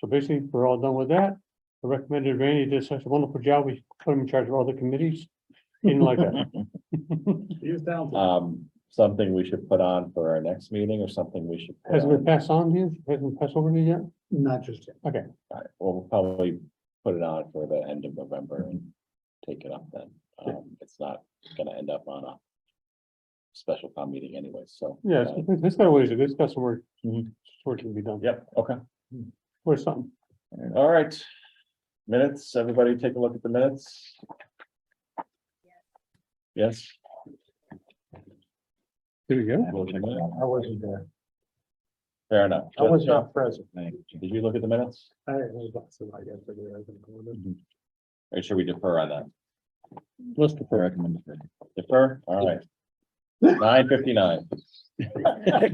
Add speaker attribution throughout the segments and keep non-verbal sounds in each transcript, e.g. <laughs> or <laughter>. Speaker 1: So basically, we're all done with that. I recommended Randy did such a wonderful job. We put him in charge of all the committees. Didn't like <laughs> that.
Speaker 2: He was talented.
Speaker 3: Uh,
Speaker 4: Um, something we should put on for our next meeting or something we should. put
Speaker 1: Hasn't
Speaker 4: on-
Speaker 1: been passed on to you? Hasn't been passed over to you yet?
Speaker 2: Not just him.
Speaker 4: All right, Well, we'll probably put it on for the end of November and take it up then. Um, it's not gonna end up on a special town meeting anyway, so.
Speaker 1: Yes,
Speaker 4: uh,
Speaker 1: this got a ways, this got some work,
Speaker 4: Mhm.
Speaker 1: work to be done.
Speaker 4: Yep, okay.
Speaker 1: Or something.
Speaker 4: All right. Minutes, everybody take a look at the minutes. Yes.
Speaker 1: There we go.
Speaker 4: we'll check it out.
Speaker 2: I wasn't there.
Speaker 4: Fair enough.
Speaker 2: I was not present.
Speaker 4: Did you look at the minutes?
Speaker 2: I was not, so I guess I did, I wasn't going
Speaker 4: Or should we defer on that?
Speaker 1: Let's defer.
Speaker 4: recommend. Defer, all right.
Speaker 3: <laughs>
Speaker 4: Nine fifty-nine.
Speaker 2: there.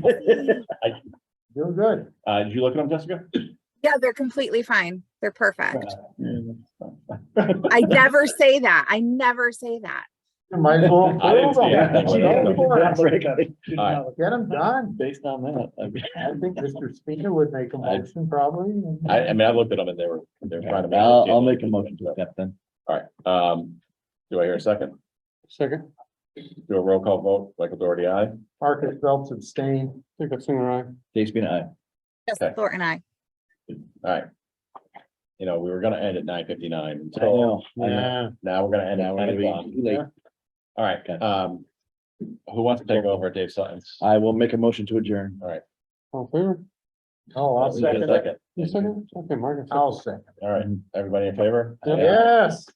Speaker 2: Doing good.
Speaker 4: Uh, did you look at them, Jessica?
Speaker 5: <laughs> Yeah, they're completely fine. They're perfect.
Speaker 4: I
Speaker 5: I never say that. I never say that.
Speaker 2: You Might
Speaker 3: <laughs>
Speaker 2: as well.
Speaker 4: didn't see
Speaker 2: Get
Speaker 4: it. Alright.
Speaker 2: him done.
Speaker 4: Based on that, I mean,
Speaker 2: I think Mr. Speaker would make a
Speaker 4: I-
Speaker 2: motion probably. and-
Speaker 4: I, I mean, I looked at them and they were, they were fine.
Speaker 3: I'll, I'll make a motion to accept then.
Speaker 4: All right, um, do I hear a second?
Speaker 1: Second,
Speaker 4: Do a roll call vote, Michael Doherty, aye?
Speaker 2: Marcus Phelps abstained.
Speaker 1: I think that's in our eye.
Speaker 3: Dave Spina, aye.
Speaker 5: Just
Speaker 4: Okay.
Speaker 5: Thor and I.
Speaker 4: All right. You know, we were gonna end at nine fifty-nine
Speaker 3: I
Speaker 4: until
Speaker 3: know, I know.
Speaker 4: now we're gonna end
Speaker 3: Now
Speaker 4: at
Speaker 3: we're
Speaker 4: nine
Speaker 3: gonna be
Speaker 4: o'clock.
Speaker 3: too late.
Speaker 4: All right,
Speaker 3: Okay.
Speaker 4: um, who wants to take over? Dave Sutton's.
Speaker 3: I will make a motion to adjourn.
Speaker 1: All in favor?
Speaker 2: Oh, I'll
Speaker 4: Is there a
Speaker 2: second it.
Speaker 4: second?
Speaker 1: You second? Okay, Margaret. second.
Speaker 2: I'll second.
Speaker 4: All right, everybody in favor?
Speaker 1: Yeah.
Speaker 2: Yes.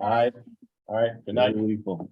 Speaker 4: Aye. All right, good night.
Speaker 3: Unbelievable.